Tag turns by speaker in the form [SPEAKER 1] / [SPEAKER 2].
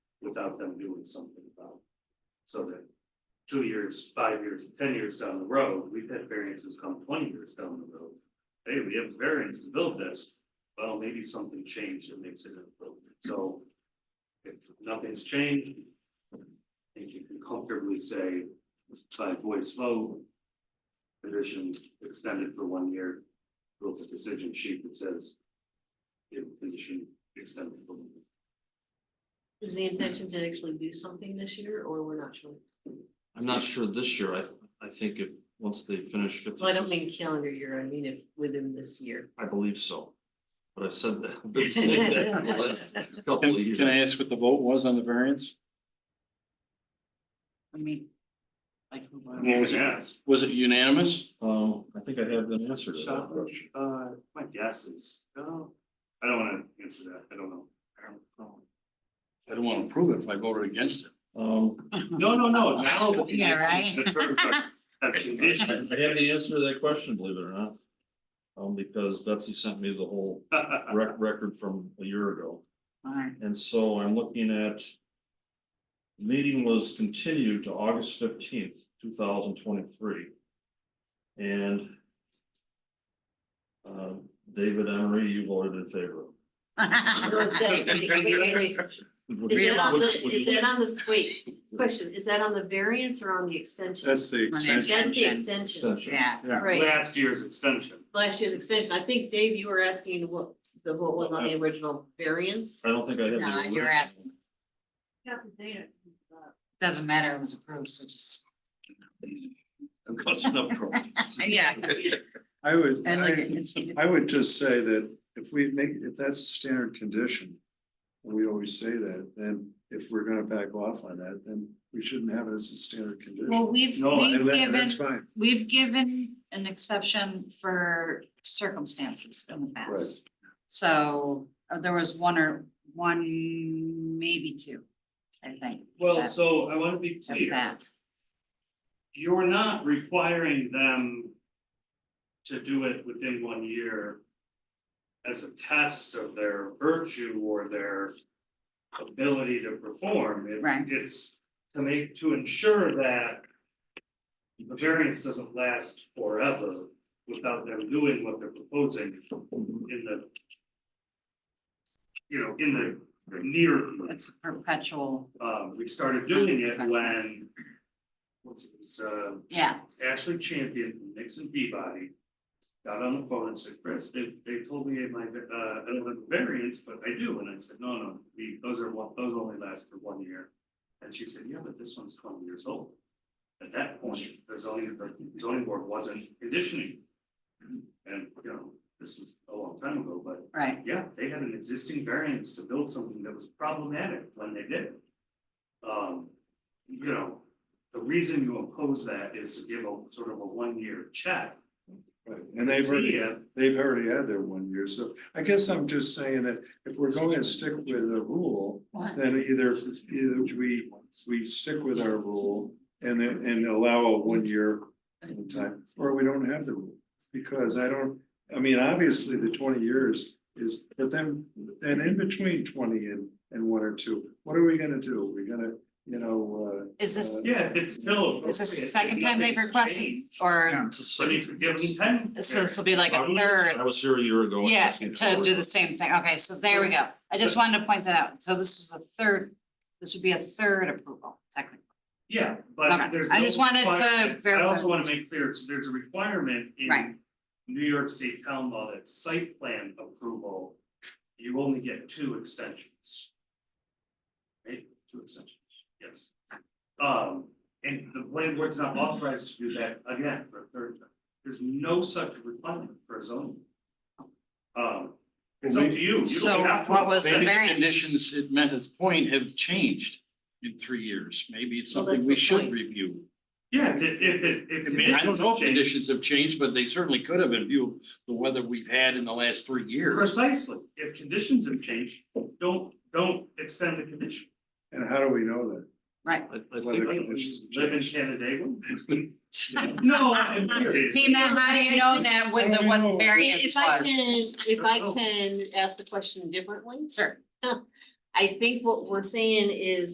[SPEAKER 1] without them doing something about it. So that two years, five years, ten years down the road, we've had variances come twenty years down the road. Hey, we have variance to build this, well, maybe something changed that makes it appropriate, so. If nothing's changed. I think you can comfortably say by voice vote. Condition extended for one year, build a decision sheet that says. If condition extended for one year.
[SPEAKER 2] Is the intention to actually do something this year or we're not sure?
[SPEAKER 3] I'm not sure this year, I, I think if, once they finish fifty.
[SPEAKER 2] Well, I don't mean calendar year, I mean if within this year.
[SPEAKER 3] I believe so, but I've said that, been saying that for the last couple of
[SPEAKER 4] Can
[SPEAKER 3] years.
[SPEAKER 4] can I ask what the vote was on the variance?
[SPEAKER 5] I mean. Like.
[SPEAKER 4] What was it?
[SPEAKER 1] Yes.
[SPEAKER 4] Was it unanimous?
[SPEAKER 3] Oh, I think I have an answer to
[SPEAKER 1] So,
[SPEAKER 3] that.
[SPEAKER 1] uh, my guess is, no, I don't wanna answer that, I don't know.
[SPEAKER 4] I don't want to prove it if I voted against it.
[SPEAKER 3] Um,
[SPEAKER 1] No, no, no. now-
[SPEAKER 5] Yeah, right.
[SPEAKER 1] The terms are- have
[SPEAKER 3] I I have
[SPEAKER 1] condition.
[SPEAKER 3] the answer to that question, believe it or not. Um, because Betsy sent me the whole rec- record from a year ago,
[SPEAKER 5] Alright,
[SPEAKER 3] and so I'm looking at. Meeting was continued to August fifteenth, two thousand twenty-three. And. Um, David Emery, you voted in favor.
[SPEAKER 2] So it's that- wait, wait, wait, wait.
[SPEAKER 3] Would
[SPEAKER 2] Is
[SPEAKER 3] you-
[SPEAKER 2] that on
[SPEAKER 3] would-
[SPEAKER 2] the,
[SPEAKER 3] would
[SPEAKER 2] is
[SPEAKER 3] you
[SPEAKER 2] that
[SPEAKER 3] like-
[SPEAKER 2] on the, wait, question, is that on the variance or on the extension?
[SPEAKER 4] the
[SPEAKER 2] That's the
[SPEAKER 5] extension.
[SPEAKER 2] extension,
[SPEAKER 3] Extension.
[SPEAKER 5] Yeah,
[SPEAKER 2] right,
[SPEAKER 1] Last year's extension,
[SPEAKER 2] last year's extension, I think, Dave, you were asking what, the, what was on the original variance?
[SPEAKER 3] I don't think I have. the
[SPEAKER 5] no, you're
[SPEAKER 3] original.
[SPEAKER 5] asking, doesn't matter, it was approved, so just,
[SPEAKER 4] I'm causing enough trouble.
[SPEAKER 5] yeah.
[SPEAKER 6] I would,
[SPEAKER 5] And like,
[SPEAKER 6] I,
[SPEAKER 5] it's- it's-
[SPEAKER 6] I would just say that if we make, if that's a standard condition. and We always say that, then if we're gonna back off on that, then we shouldn't have it as a standard
[SPEAKER 5] well,
[SPEAKER 6] condition.
[SPEAKER 5] we've,
[SPEAKER 1] No,
[SPEAKER 5] we've
[SPEAKER 6] And that- and
[SPEAKER 5] given,
[SPEAKER 6] that's fine,
[SPEAKER 5] we've given an exception for circumstances in the past. So uh, there was one or, one, maybe two, I think.
[SPEAKER 1] well,
[SPEAKER 5] that-
[SPEAKER 1] so I wanna be
[SPEAKER 5] That's
[SPEAKER 1] clear,
[SPEAKER 5] that,
[SPEAKER 1] you're not requiring them. To do it within one year. As a test of their virtue or their. Ability to perform, it's,
[SPEAKER 5] Right.
[SPEAKER 1] it's to make, to ensure that. The variance doesn't last forever without them doing what they're proposing in the. You know, in the near.
[SPEAKER 5] it's a perpetual,
[SPEAKER 1] Um, we started doing it when. What's it, was, uh,
[SPEAKER 5] yeah,
[SPEAKER 1] Ashley Champion from Nixon Peabody. Got on the phone and said, Chris, they, they told me my, uh, I don't have a variance, but I do, and I said, no, no, the, those are one, those only last for one year. And she said, yeah, but this one's twenty years old. At that point, the zoning, the zoning board wasn't conditioning. And, you know, this was a long time ago, but
[SPEAKER 5] right,
[SPEAKER 1] yeah, they had an existing variance to build something that was problematic when they did it. Um, you know, the reason you oppose that is to give a sort of a one-year check.
[SPEAKER 6] right, and they've
[SPEAKER 1] See
[SPEAKER 6] already,
[SPEAKER 1] if
[SPEAKER 6] they've already had their one year, so I guess I'm just saying that if we're going to stick with a rule.
[SPEAKER 5] What?
[SPEAKER 6] Then either, either we, we stick with our rule and then, and allow a one year in time, or we don't have the rule. Because I don't, I mean, obviously the twenty years is, but then, then in between twenty and, and one or two, what are we gonna do? We're gonna, you know, uh.
[SPEAKER 5] is this,
[SPEAKER 1] Yeah, it's still.
[SPEAKER 5] is this the
[SPEAKER 1] appropriate.
[SPEAKER 5] second time they've
[SPEAKER 1] Nothing's
[SPEAKER 5] requested,
[SPEAKER 1] changed.
[SPEAKER 5] or,
[SPEAKER 3] It's a
[SPEAKER 1] So
[SPEAKER 3] second-
[SPEAKER 1] you could give them ten.
[SPEAKER 5] so this will be like a
[SPEAKER 3] Probably.
[SPEAKER 5] third?
[SPEAKER 3] I was here a year ago. and
[SPEAKER 5] Yeah,
[SPEAKER 3] asking
[SPEAKER 5] to
[SPEAKER 3] for
[SPEAKER 5] do
[SPEAKER 3] it.
[SPEAKER 5] the same thing, okay, so there we go, I just wanted to point that out, so this is the third, this would be a third approval, technically.
[SPEAKER 1] Yeah, but
[SPEAKER 5] Okay.
[SPEAKER 1] there's.
[SPEAKER 5] I
[SPEAKER 1] no
[SPEAKER 5] just wanted to
[SPEAKER 1] requirement. I
[SPEAKER 5] verify.
[SPEAKER 1] also wanna make clear, so there's a requirement
[SPEAKER 5] Right.
[SPEAKER 1] in New York State town law that site plan approval, you only get two extensions. Right, two extensions, yes. Um, and the planning board's not authorized to do that again for a third time. There's no such requirement for a zoning. Um, it's up to you, you
[SPEAKER 5] So
[SPEAKER 1] don't have to.
[SPEAKER 5] what was the
[SPEAKER 4] Maybe the
[SPEAKER 5] variance?
[SPEAKER 4] conditions it met its point have changed in three years. Maybe it's
[SPEAKER 2] Well,
[SPEAKER 4] something
[SPEAKER 2] that's
[SPEAKER 4] we
[SPEAKER 2] the
[SPEAKER 4] should
[SPEAKER 2] point.
[SPEAKER 4] review.
[SPEAKER 1] Yeah, if, it- if, it- if.
[SPEAKER 4] I mean, I don't know
[SPEAKER 1] conditions
[SPEAKER 4] if
[SPEAKER 1] change.
[SPEAKER 4] conditions have changed, but they certainly could have in view of the weather we've had in the last three years.
[SPEAKER 1] Precisely, if conditions have changed, don't, don't extend the condition.
[SPEAKER 6] And how do we know that?
[SPEAKER 5] Right,
[SPEAKER 3] I, I
[SPEAKER 6] Whether
[SPEAKER 3] think,
[SPEAKER 6] conditions
[SPEAKER 1] Live in
[SPEAKER 6] change.
[SPEAKER 1] Canandaigua? No, I'm serious.
[SPEAKER 5] Tina, how do you know that with
[SPEAKER 6] I
[SPEAKER 5] the
[SPEAKER 6] don't know.
[SPEAKER 5] one variance
[SPEAKER 2] If I can,
[SPEAKER 5] was?
[SPEAKER 2] if I can ask the question differently,
[SPEAKER 5] Sure.
[SPEAKER 2] I think what we're saying is